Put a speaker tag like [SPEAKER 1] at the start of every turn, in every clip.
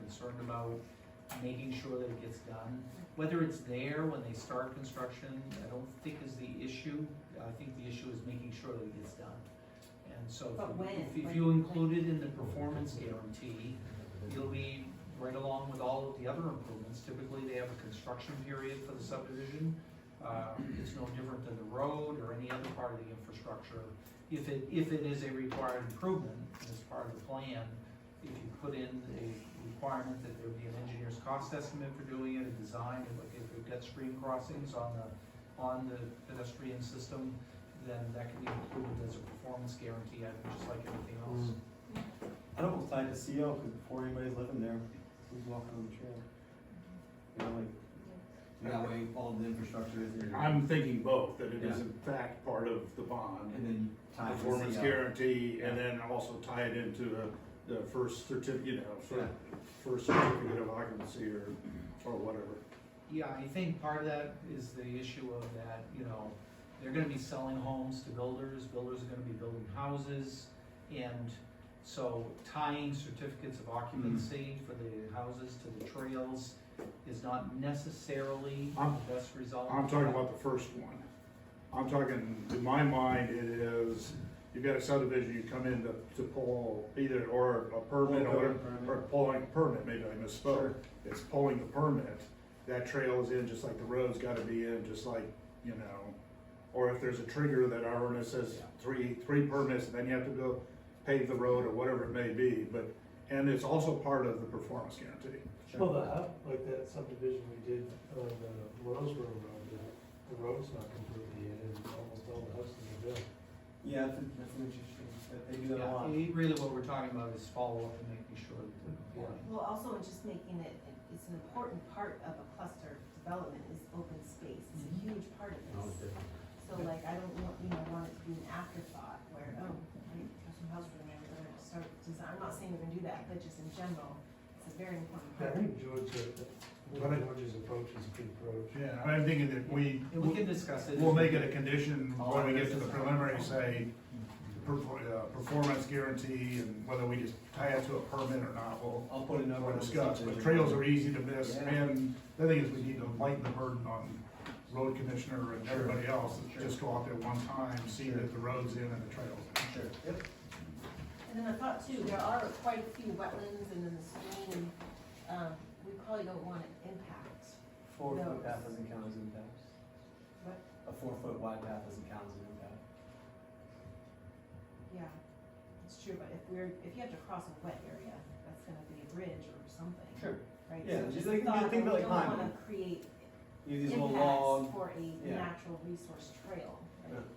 [SPEAKER 1] concerned about making sure that it gets done. Whether it's there when they start construction, I don't think is the issue. I think the issue is making sure that it gets done. And so if
[SPEAKER 2] But
[SPEAKER 1] you-
[SPEAKER 2] when?
[SPEAKER 1] if, if
[SPEAKER 2] When-
[SPEAKER 1] you
[SPEAKER 2] when?
[SPEAKER 1] include it in the performance guarantee, you'll be right along with all of the other improvements. Typically, they have a construction period for the subdivision. Uh, It's no different than the road or any other part of the infrastructure. If it, if it is a required improvement as part of the plan, if you put in a requirement that there be an engineer's cost estimate for doing it, a design, if like if you've got stream crossings on the, on the pedestrian system, then that can be included as a performance guarantee, item, just like anything else.
[SPEAKER 3] I'd almost like to see CO, because before anybody's living there, who's walking on the trail? You know, like, that way all the infrastructure is there.
[SPEAKER 4] I'm thinking both, that it is
[SPEAKER 3] Yeah.
[SPEAKER 4] in fact part of the
[SPEAKER 3] And
[SPEAKER 4] bond,
[SPEAKER 3] then tie the
[SPEAKER 4] performance
[SPEAKER 3] CO.
[SPEAKER 4] guarantee, and then also tie it into the, the first certi, you know, sort of
[SPEAKER 3] Yeah.
[SPEAKER 4] first certificate of occupancy or, or whatever.
[SPEAKER 1] Yeah, I think part of that is the issue of that, you know, they're gonna be selling homes to builders, builders are gonna be building houses. And so tying certificates of
[SPEAKER 4] Mm-hmm.
[SPEAKER 1] occupancy for the houses to the trails is not necessarily
[SPEAKER 4] I'm-
[SPEAKER 1] the best result.
[SPEAKER 4] I'm talking about the first one. I'm talking, in my mind, it is, you've got a subdivision, you come in to, to pull either, or a permit,
[SPEAKER 3] Pull a
[SPEAKER 4] or,
[SPEAKER 3] building permit.
[SPEAKER 4] or pulling a permit, maybe I misspoke.
[SPEAKER 3] Sure.
[SPEAKER 4] It's pulling the permit, that trail is in, just like the road's gotta be in, just like, you know. Or if there's a trigger that our ordinance says three, three permits, then you have to go pave the road or whatever it may be, but, and it's also part of the performance guarantee.
[SPEAKER 3] Sure.
[SPEAKER 5] Well, the, hub- like that subdivision we did on the Rose Road, Road, the, the road's not completely in, and almost all the houses are built.
[SPEAKER 3] Yeah, that's, that's interesting, That they do that
[SPEAKER 1] Yeah,
[SPEAKER 3] a lot.
[SPEAKER 1] it- really what we're talking about is follow-up and making sure that they're compliant.
[SPEAKER 2] Well, also in just making it, it's an important part of a cluster development is open space, it's a huge part of
[SPEAKER 5] Oh,
[SPEAKER 2] this. So like, I don't want, you know, want it to be an afterthought where, oh, we have some house for them, we're gonna start design, I'm not saying we're gonna do that, but just in general, it's a very important
[SPEAKER 5] I
[SPEAKER 2] part.
[SPEAKER 5] think George, uh,
[SPEAKER 4] But I-
[SPEAKER 5] George's approach is a good approach.
[SPEAKER 4] Yeah, I'm thinking that we,
[SPEAKER 1] And we can discuss it.
[SPEAKER 4] We'll make it a condition when we get to the preliminary, say, perfor- uh, performance guarantee and whether we just tie it to a permit or not, we'll,
[SPEAKER 3] I'll put a number. on
[SPEAKER 4] we'll
[SPEAKER 3] the
[SPEAKER 4] discuss. But
[SPEAKER 3] subdivision.
[SPEAKER 4] trails are easy to miss
[SPEAKER 3] Yeah.
[SPEAKER 4] and the thing is we need to lighten the burden on road commissioner and everybody else. Just go out there one time, see that the road's in and the trail's in.
[SPEAKER 3] Sure, yep.
[SPEAKER 2] And then I thought too, there are quite a few wetlands and then the stream, um, we probably don't want to impact,
[SPEAKER 3] Four
[SPEAKER 2] Those.
[SPEAKER 3] foot path doesn't count as an impact.
[SPEAKER 2] What?
[SPEAKER 3] A four foot wide path doesn't count as an impact.
[SPEAKER 2] yeah, it's true, but if we're, if you have to cross a wet area, that's gonna be a bridge or something,
[SPEAKER 3] Sure.
[SPEAKER 2] right? So
[SPEAKER 3] Yeah,
[SPEAKER 2] just
[SPEAKER 3] just think-
[SPEAKER 2] thought
[SPEAKER 3] think
[SPEAKER 2] that we
[SPEAKER 3] about like
[SPEAKER 2] don't wanna
[SPEAKER 3] climbing.
[SPEAKER 2] Create
[SPEAKER 3] Use these little
[SPEAKER 2] impacts
[SPEAKER 3] long,
[SPEAKER 2] for a
[SPEAKER 3] yeah.
[SPEAKER 2] natural resource trail,
[SPEAKER 3] Yeah.
[SPEAKER 2] right?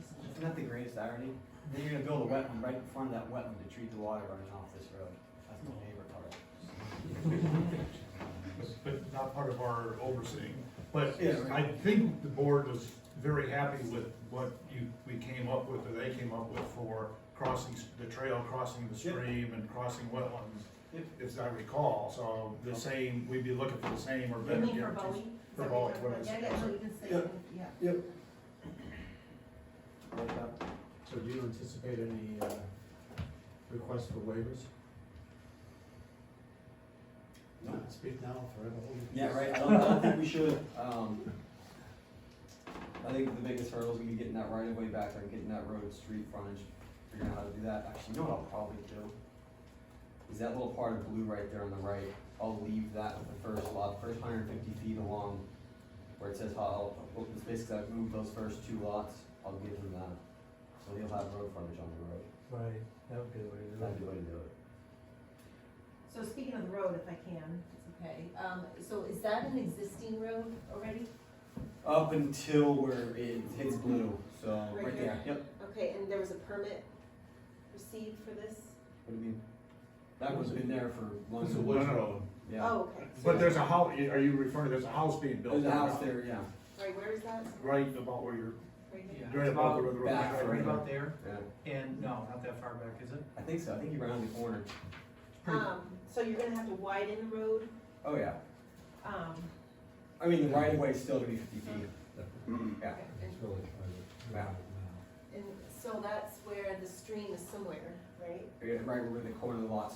[SPEAKER 2] So just-
[SPEAKER 3] It's not the greatest irony? Then you're gonna build a wetland right in front of that wetland to treat the water running off this road. That's my favorite part.
[SPEAKER 4] but not part of our overseeing. But
[SPEAKER 3] Yeah.
[SPEAKER 4] I think the board was very happy with what you, we came up with, or they came up with for crossing s- the trail, crossing the
[SPEAKER 3] Yep.
[SPEAKER 4] stream and crossing wetlands,
[SPEAKER 3] Yep.
[SPEAKER 4] as I recall, so the same, we'd be looking for the same or
[SPEAKER 2] You
[SPEAKER 4] better
[SPEAKER 2] mean for
[SPEAKER 4] guarantees.
[SPEAKER 2] Bowie? Is
[SPEAKER 4] For
[SPEAKER 2] that
[SPEAKER 4] Bowie,
[SPEAKER 2] what
[SPEAKER 4] what I
[SPEAKER 2] you're-
[SPEAKER 4] was
[SPEAKER 2] Yeah, yeah, so you can say,
[SPEAKER 3] Yep.
[SPEAKER 2] yeah.
[SPEAKER 3] Yep.
[SPEAKER 6] So do you anticipate any uh, requests for waivers?
[SPEAKER 3] No.
[SPEAKER 6] Speak now or forever hold your
[SPEAKER 3] Yeah,
[SPEAKER 6] peace.
[SPEAKER 3] right, I don't, I don't think we should, um, I think the biggest hurdle is gonna be getting that right of way back there, getting that road, street frontage, figuring out how to do that. Actually, you know what I'll probably do? Is that little part of blue right there on the right, I'll leave that with the first lot, first hundred and fifty feet along where it says how, open space, cause I've moved those first two lots, I'll give them that. So they'll have road frontage on the road,
[SPEAKER 5] Right, that would be the way to do
[SPEAKER 3] that'd be
[SPEAKER 5] it.
[SPEAKER 3] the way to do it.
[SPEAKER 2] So speaking of the road, if I can, it's okay, um, so is that an existing road already?
[SPEAKER 3] Up until where it hits blue, so,
[SPEAKER 2] Right
[SPEAKER 3] right there,
[SPEAKER 2] here?
[SPEAKER 3] yep,
[SPEAKER 2] Okay, and there was a permit received for this?
[SPEAKER 3] what do you mean? That one's been there for long.
[SPEAKER 6] It's a
[SPEAKER 4] No, no,
[SPEAKER 6] wood road.
[SPEAKER 4] no.
[SPEAKER 3] Yeah.
[SPEAKER 2] Oh, okay.
[SPEAKER 4] But there's a house, are you referring, there's a house being built?
[SPEAKER 3] There's a
[SPEAKER 4] right
[SPEAKER 3] house
[SPEAKER 4] now,
[SPEAKER 3] there, yeah.
[SPEAKER 2] Right, where is that?
[SPEAKER 4] Right about where you're,
[SPEAKER 2] Right
[SPEAKER 1] Yeah,
[SPEAKER 2] here?
[SPEAKER 1] it's
[SPEAKER 4] right above
[SPEAKER 1] about,
[SPEAKER 4] where the road.
[SPEAKER 3] back
[SPEAKER 1] right about there,
[SPEAKER 3] Yeah.
[SPEAKER 1] and no, not that far back, is it?
[SPEAKER 3] I think so, I think you round the corner.
[SPEAKER 1] Pretty-
[SPEAKER 2] Um, so you're gonna have to widen the road,
[SPEAKER 3] Oh, yeah.
[SPEAKER 2] um,
[SPEAKER 3] I mean, the right of way is still gonna be fifty feet. Yeah.
[SPEAKER 2] and,
[SPEAKER 6] It's really private.
[SPEAKER 3] Wow.
[SPEAKER 2] and so that's where the stream is somewhere, right?
[SPEAKER 3] Right where the corner of the lot's